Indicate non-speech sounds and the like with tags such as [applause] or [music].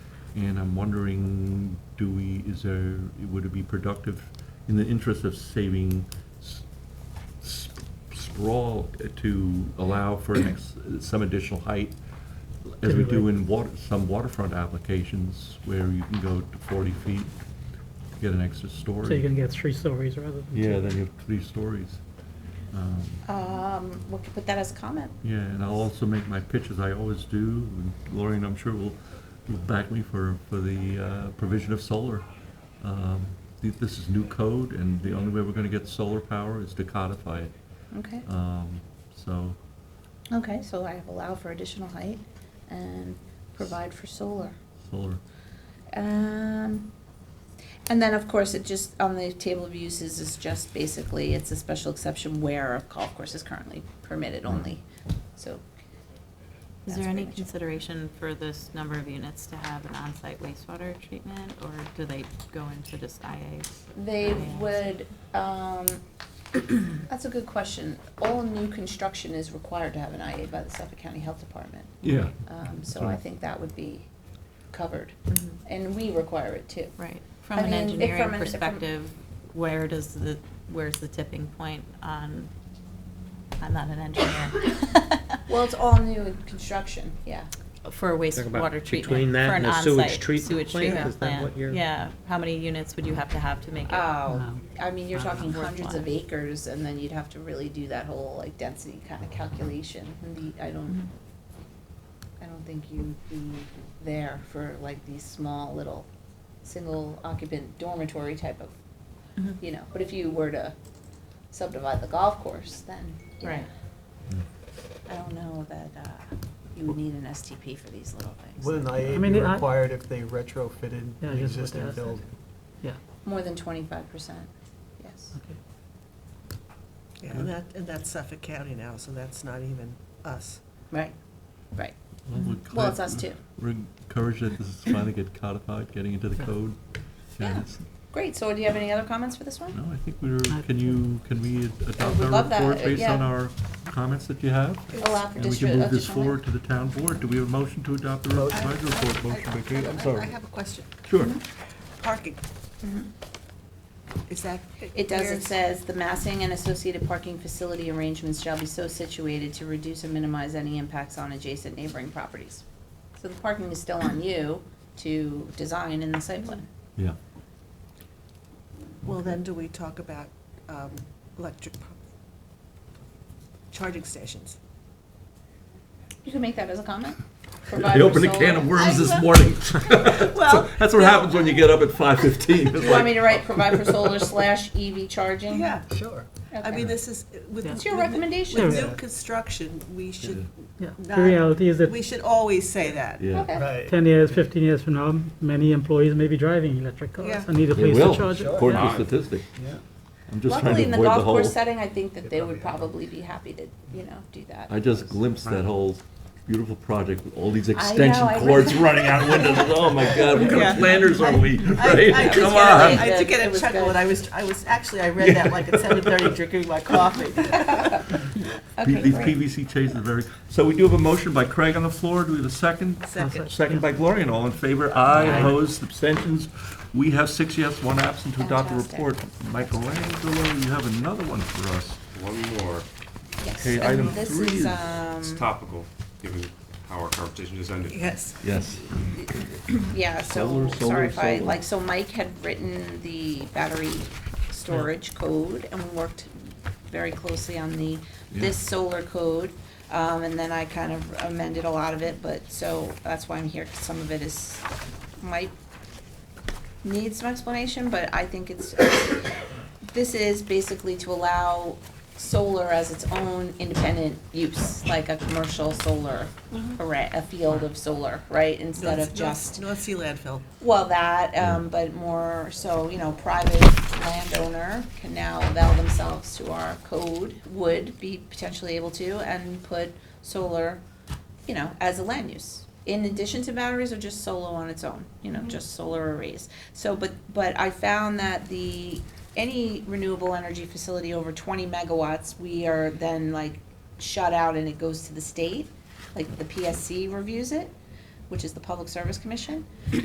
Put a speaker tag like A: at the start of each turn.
A: And I'm wondering, do we, is there, would it be productive, in the interest of saving s- s- sprawl, uh, to allow for an ex- some additional height, as we do in water, some waterfront applications, where you can go to forty feet, to get an extra story?
B: So you're gonna get three stories rather than two?
A: Yeah, then you have three stories. Um,
C: Um, we could put that as a comment.
A: Yeah, and I'll also make my pitch as I always do, and Lori, and I'm sure will, will back me for, for the uh, provision of solar. Um, th- This is new code, and the only way we're gonna get solar power is to codify it.
C: Okay.
A: Um, So,
C: Okay, so I have allow for additional height and provide for solar.
A: solar,
C: Um, and then, of course, it just, on the table of uses is just basically, it's a special exception where a golf course is currently permitted only, so.
D: Is
C: that's
D: there
C: pretty
D: any
C: much it.
D: consideration for this number of units to have an on-site wastewater treatment, or do they go into just IA?
C: They would, um, [coughs] that's a good question. All new construction is required to have an IA by the Suffolk County Health Department.
A: yeah,
C: Um, so
A: Sure.
C: I think that would be covered,
D: Mhm.
C: and we require it too.
D: Right, from
C: I
D: an
C: mean, if
D: engineering
C: from an- if from-
D: perspective, where does the, where's the tipping point on, I'm not an engineer.
C: [laughs] Well, it's all new construction, yeah.
D: For wastewater treatment,
B: between
D: for
B: that
D: an
B: and the sewage
D: on-site
B: treatment
D: sewage
B: plant?
D: treatment
B: Is that
D: plant,
B: what you're-
D: yeah, how many units would you have to have to make it?
C: Oh, I mean, you're
D: Um,
C: talking hundreds of
D: worthwhile.
C: acres, and then you'd have to really do that whole like density kind of calculation. And the, I
D: Mhm.
C: don't,
D: Mm-hmm.
C: I don't think you'd be there for like these small little single occupant dormitory type of,
D: Mhm.
C: you know. But if you were to subdivide the golf course, then yeah.
D: Right.
C: I don't know that uh, you would need an STP for these little things.
E: Wouldn't IA
B: mean,
E: be
B: I-
E: required if they retrofitted
B: Yeah,
E: the
B: I just put that
E: existing
B: as
E: building?
B: Yeah,
C: More than twenty-five percent, yes.
B: okay.
F: Yeah, and that, and that's Suffolk County now, so that's not even us.
C: Right, right.
A: Well, we're
C: Well,
A: glad-
C: it's us too.
A: We're encouraged that this is finally get codified, getting into the code.
C: Yeah.
A: And it's-
C: Great, so do you have any other comments for this one?
A: No, I think we're, can you, can we adopt
C: would
A: our
C: love that,
A: report based on
C: yeah.
A: our comments that you have?
C: Allow for
A: And we can
C: district.
A: move this forward to the town board. Do we have a motion to adopt the revised report? Motion by Katie, I'm
F: I
A: sorry.
F: have a question.
A: Sure.
F: Parking,
C: Mm-hmm.
F: is that?
C: It does, it
F: where's-
C: says, "The massing and associated parking facility arrangements shall be so situated to reduce and minimize any impacts on adjacent neighboring properties." So the parking is still on you to design in the site plan.
A: Yeah.
F: Well, then do we talk about um, electric pu- charging stations?
C: You can make that as a comment.
A: [laughs] I opened a can of worms this
C: [laughs]
A: morning. [laughs]
F: Well,
A: That's what happens when you get up at five fifteen.
C: Do you want me to write provide for solar slash EV charging?
F: Yeah,
E: Sure.
F: I mean, this is, with.
B: It's
C: your
F: with-
C: recommendation.
F: With
B: Yeah.
F: new construction, we should
B: Yeah,
F: not.
B: the reality is
F: We
B: that
F: should always say that.
A: Yeah.
C: Okay,
E: Right.
B: ten years, fifteen years from now, many employees may be driving electric
F: Yeah.
B: cars and need a
A: They
B: place to
A: will,
B: charge it.
A: According to
B: Yeah.
A: statistics.
E: Yeah.
A: I'm just trying
C: luckily
A: to
C: in the
A: avoid
C: golf
A: the whole,
C: course setting, I think that
E: They
C: they would
E: probably
C: probably be happy to, you know, do that.
A: I just glimpsed that whole beautiful project with all these
C: know,
A: extension
C: I
A: cords
C: really-
A: running out windows. Oh my God, what kind of
F: Yeah.
A: planners are we,
F: I,
A: right?
F: I
A: Come
F: did get a-
A: on.
C: on.
F: I did
C: It
F: get a
C: was
F: chuckle,
C: good.
F: and I was, I was, actually, I read that like at
A: [laughs]
F: seven thirty, drinking my coffee.
A: P-
C: Okay,
A: These
C: great.
A: PVC chains are very, so we do have a motion by Craig on the floor. Do we have a second?
F: Second.
A: Second by Gloria, and all in favor? Aye, opposed, abstentions? We have six yes, one absent to adopt the
C: Fantastic.
A: report. Michelangelo, you have another one for us.
G: One more,
C: Yes.
A: Okay,
C: And
A: item
C: this
A: three
C: is,
A: is-
C: um,
G: it's topical, given how our conversation has ended.
F: Yes.
A: Yes.
C: Yeah, so,
A: Solar,
C: sorry
A: solar,
C: if I,
A: solar.
C: like, so Mike had written the battery storage code, and we worked very closely on the, this solar code. Um, and then I kind of amended a lot of it, but, so, that's why I'm here, 'cause some of it is, might need some explanation, but I think it's, this is basically to allow solar as its own independent use, like a commercial solar array, a field of solar, right? Instead of
F: North-
C: just.
F: North Sea landfill.
C: Well, that, um, but more so, you know, private landowner can now avail themselves to our code, would be potentially able to, and put solar, you know, as a land use. In addition to batteries or just solo on its own, you know, just solar arrays. So, but, but I found that the, any renewable energy facility over twenty megawatts, we are then like shut out and it goes to the state. Like the PSC reviews it, which is the Public Service Commission.